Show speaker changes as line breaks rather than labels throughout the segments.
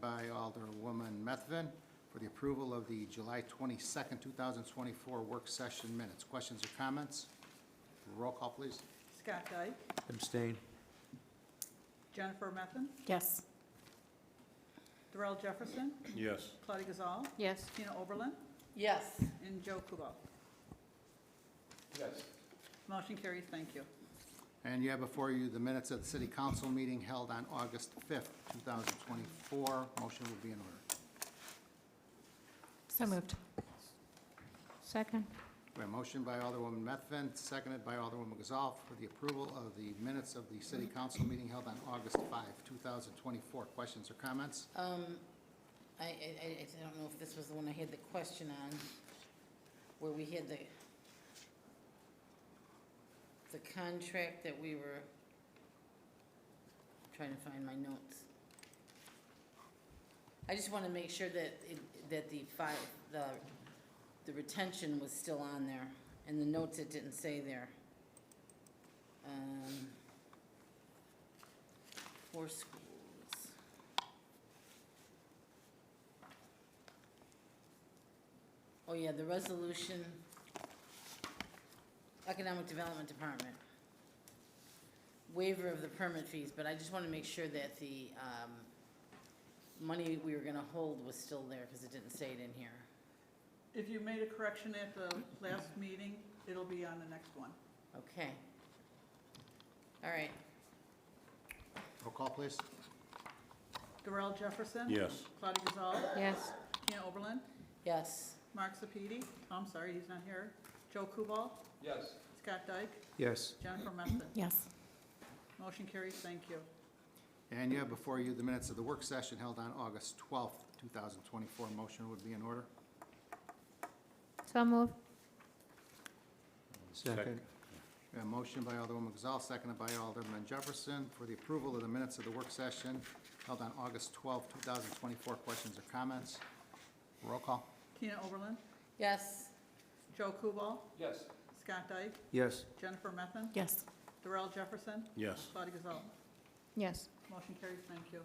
by Alderwoman Methvin for the approval of the July 22nd, 2024 work session minutes. Questions or comments? Roll call, please.
Scott Dyke,
Abstain.
Jennifer Methvin,
Yes.
Darrell Jefferson,
Yes.
Claudia Gazal,
Yes.
Tina Oberlin,
Yes.
and Joe Kuba.
Yes.
Motion carries, thank you.
And you have before you the minutes of the city council meeting held on August 5th, 2024. Motion would be in order.
So moved. Second.
We have a motion by Alderwoman Methvin, seconded by Alderwoman Gazal for the approval of the minutes of the city council meeting held on August 5, 2024. Questions or comments?
Um, I, I, I I don't know if this was the one I had the question on, where we had the, the contract that we were, trying to find my notes. I just want to make sure that, it- that the five, the, the retention was still on there, and the notes it didn't say there. Um, For schools. Oh, yeah, the resolution, Economic Development Department. Waiver of the permit fees, but I just want to make sure that the um, money we were going to hold was still there, because it didn't say it in here.
If you made a correction at the last meeting, it'll be on the next one.
Okay. All right,
Roll call, please.
Darrell Jefferson.
Yes.
Claudia Gazal,
Yes.
Tina Oberlin,
yes,
Mark Sepiti, I'm sorry, he's not here, Joe Kubal,
Yes.
Scott Dyke,
Yes.
Jennifer Methvin.
Yes.
Motion carries, thank you.
And you have before you the minutes of the work session held on August 12th, 2024. Motion would be in order.
So moved.
Second.
We have A motion by Alderwoman Gazal, seconded by Alderman Jefferson for the approval of the minutes of the work session held on August 12th, 2024. Questions or comments? Roll call.
Tina Oberlin,
yes,
Joe Kubal,
Yes.
Scott Dyke,
Yes.
Jennifer Methvin,
Yes.
Darrell Jefferson,
Yes.
Claudia Gazal.
Yes.
Motion carries, thank you.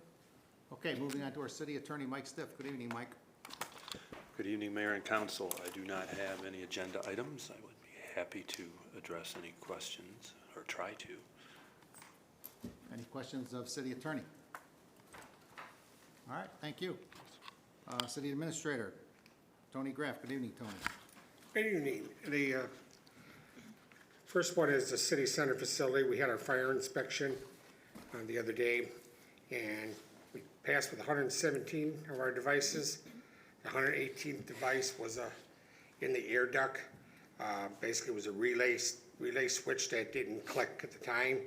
Okay, moving on to our city attorney, Mike Stiff. Good evening, Mike.
Good evening, Mayor and Council. I do not have any agenda items. I would be happy to address any questions, or try to.
Any questions of city attorney? All right, thank you. Uh, City administrator, Tony Graff. Good evening, Tony.
Good evening. The uh, first one is the city center facility. We had our fire inspection uh, the other day, and we passed with 117 of our devices. The 118th device was uh, in the air duct. Uh, Basically, it was a relay, s- relay switch that didn't click at the time.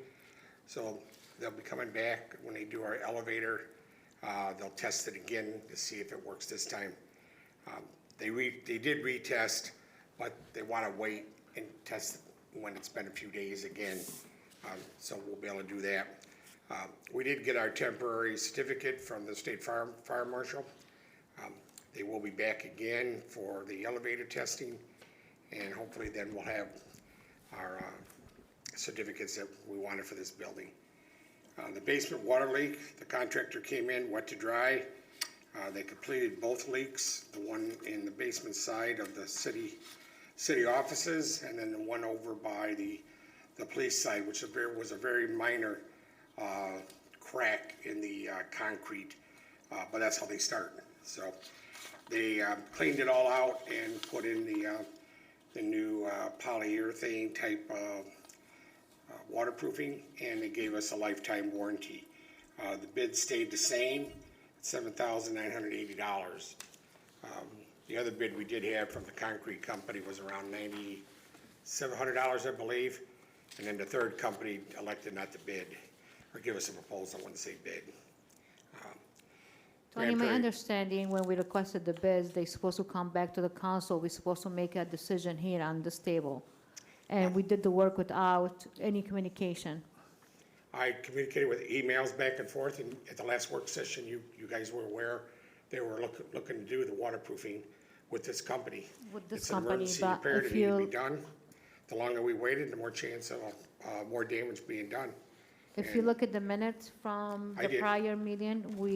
So they'll be coming back when they do our elevator. Uh, They'll test it again to see if it works this time. Um, They re, they did retest, but they want to wait and test when it's been a few days again. Um, So we'll be able to do that. Um, We did get our temporary certificate from the state fire, fire marshal. Um, They will be back again for the elevator testing, and hopefully then we'll have our uh, certificates that we wanted for this building. Uh, The basement water leak, the contractor came in, wet to dry. Uh, They completed both leaks, the one in the basement side of the city, city offices, and then the one over by the, the police side, which a ver- was a very minor uh, crack in the uh, concrete, uh, but that's how they start. So they uh, cleaned it all out and put in the, uh, the new uh, polyurethane type of uh, waterproofing, and they gave us a lifetime warranty. Uh, The bid stayed the same, $7,980. Um, The other bid we did have from the concrete company was around $9,700, I believe, and then the third company elected not to bid, or give us a proposal, I wouldn't say bid. Um,
Tony, my
Grandpa-
understanding, when we requested the bids, they supposed to come back to the council. We're supposed to make a decision here on this table. And we did the work without any communication.
I communicated with emails back and forth, and at the last work session, you, you guys were aware they were looking, looking to do the waterproofing with this company.
With this
It's an
company,
emergency
but
repair that
if
needed to
you-
be done. The longer we waited, the more chance of, uh, more damage being done.
If you look at the minutes from
I
the
did.
prior meeting, we